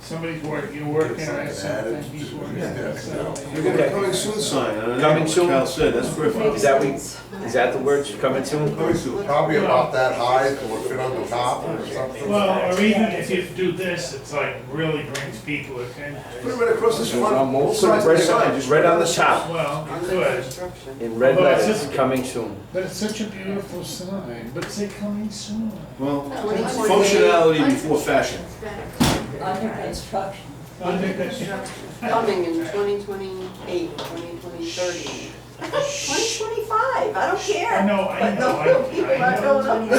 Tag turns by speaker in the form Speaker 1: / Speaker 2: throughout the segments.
Speaker 1: Somebody's working, you're working on
Speaker 2: Something added
Speaker 1: something, he's
Speaker 2: to
Speaker 1: working
Speaker 2: his
Speaker 1: on
Speaker 2: desk,
Speaker 1: something.
Speaker 3: You're gonna
Speaker 1: Coming
Speaker 2: Coming soon sign, I don't know
Speaker 3: Coming
Speaker 2: what
Speaker 3: soon?
Speaker 2: Cal said, that's
Speaker 3: Is
Speaker 2: perfect.
Speaker 3: that we, is that the word, coming soon?
Speaker 2: Coming soon.
Speaker 4: Probably about that high, so it'll fit on the top or something.
Speaker 1: Well, or even if you do this, it's like really brings people attention.
Speaker 2: Put it right across the front, both
Speaker 3: So
Speaker 2: sides of the sign,
Speaker 3: right,
Speaker 2: just
Speaker 3: right on the top,
Speaker 1: Well, it could,
Speaker 3: in red
Speaker 1: Well,
Speaker 3: letters,
Speaker 1: it's-
Speaker 3: coming soon.
Speaker 1: but it's such a beautiful sign, but say coming soon.
Speaker 2: Well, functionality before fashion.
Speaker 5: Under construction.
Speaker 1: I think that's,
Speaker 6: Coming in 2028, 2030.
Speaker 5: 2025, I don't
Speaker 1: I
Speaker 5: care.
Speaker 1: know, I
Speaker 5: But
Speaker 1: know,
Speaker 5: no, people
Speaker 1: I, I
Speaker 5: are
Speaker 1: know.
Speaker 5: going up.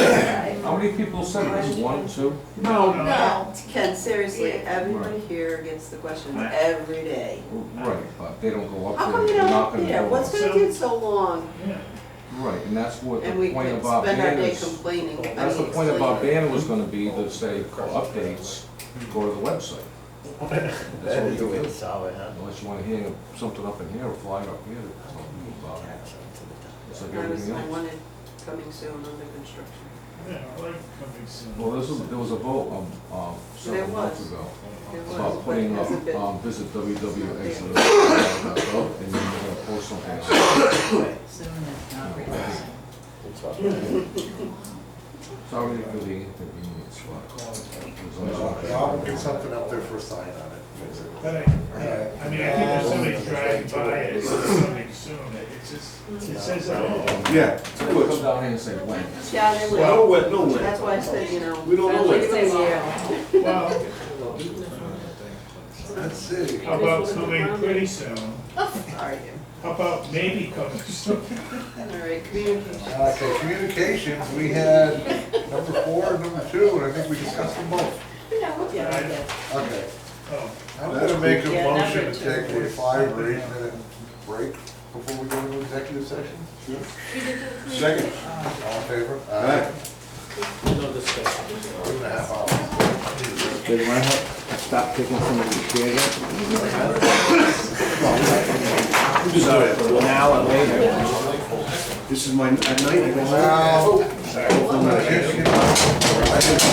Speaker 7: How many people sent this? One, two?
Speaker 1: No, no.
Speaker 5: No,
Speaker 6: Ken, seriously, everybody here gets the questions every day.
Speaker 7: Right, but they don't go up
Speaker 6: How
Speaker 7: there.
Speaker 6: come you
Speaker 7: they're
Speaker 6: don't
Speaker 7: not
Speaker 6: up
Speaker 7: gonna
Speaker 6: there?
Speaker 7: go
Speaker 6: What's
Speaker 7: up.
Speaker 6: gonna take so long?
Speaker 1: Yeah.
Speaker 7: Right, and that's what the
Speaker 6: And we
Speaker 7: point
Speaker 6: could
Speaker 7: about
Speaker 6: spend our day
Speaker 7: banners,
Speaker 6: complaining. I
Speaker 7: that's the
Speaker 6: mean,
Speaker 7: point about
Speaker 6: explaining.
Speaker 7: banner was gonna be to say, for updates, go to the website. That's what you do, unless you wanna hang something up in here or fly up here, that's all you about it. It's like
Speaker 6: I was,
Speaker 7: everything
Speaker 6: I
Speaker 7: else.
Speaker 6: wanted coming soon under construction.
Speaker 1: Yeah, I like coming soon.
Speaker 7: Well, this was, there was a vote, um, um,
Speaker 6: There
Speaker 7: several months
Speaker 6: was.
Speaker 7: ago,
Speaker 6: It was,
Speaker 7: about
Speaker 6: but it
Speaker 7: putting up,
Speaker 6: hasn't been-
Speaker 7: um, visit www.exeter.gov, and then we're gonna post something. on it.
Speaker 5: Soon is not realistic.
Speaker 7: It's already really inconvenient,
Speaker 4: Yeah, I'll get something up there for a sign on it. fix it.
Speaker 1: But I, I mean, I think if somebody's driving by, it, it's coming soon, it's just, it says, oh,
Speaker 2: Yeah,
Speaker 7: Come down here and say, when?
Speaker 6: Yeah, they would.
Speaker 2: No wet, no
Speaker 6: That's
Speaker 2: wet.
Speaker 6: why I said, you know.
Speaker 2: We don't know
Speaker 6: leave
Speaker 2: it.
Speaker 6: them here.
Speaker 1: well,
Speaker 2: Let's see.
Speaker 1: how about coming pretty soon?
Speaker 6: Sorry.
Speaker 1: How about maybe coming soon?
Speaker 6: All right, communication.
Speaker 4: Okay, communications, we had number four, and number two, and I think we discussed them both. Okay,
Speaker 1: Oh,
Speaker 4: I'm gonna make a
Speaker 6: Yeah, number
Speaker 4: motion to
Speaker 6: two.
Speaker 4: take a five or eight minute break before we go into executive session.
Speaker 2: Second.
Speaker 4: All in favor?
Speaker 2: Aye.
Speaker 4: Two and a half hours.
Speaker 7: Did I have, stop taking some of these chairs out?
Speaker 2: Sorry.
Speaker 7: An hour later.
Speaker 2: This is my, at night, I go, "Ah."
Speaker 4: Well, I guess you know, I just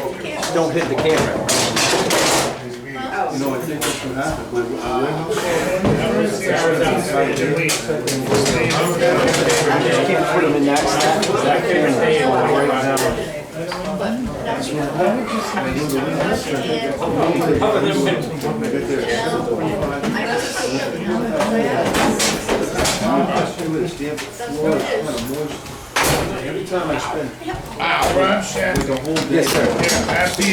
Speaker 4: record
Speaker 7: Don't hit the camera.
Speaker 4: these meetings.
Speaker 2: you know, I think this should happen, but, uh,
Speaker 1: that was the hour that was ready to leave.
Speaker 7: I just can't put them in that stack. That camera stay in one right now.
Speaker 2: every time I spend
Speaker 1: Ah, Rob Shat,
Speaker 2: the whole day.
Speaker 7: Yes, sir.
Speaker 1: yeah, after you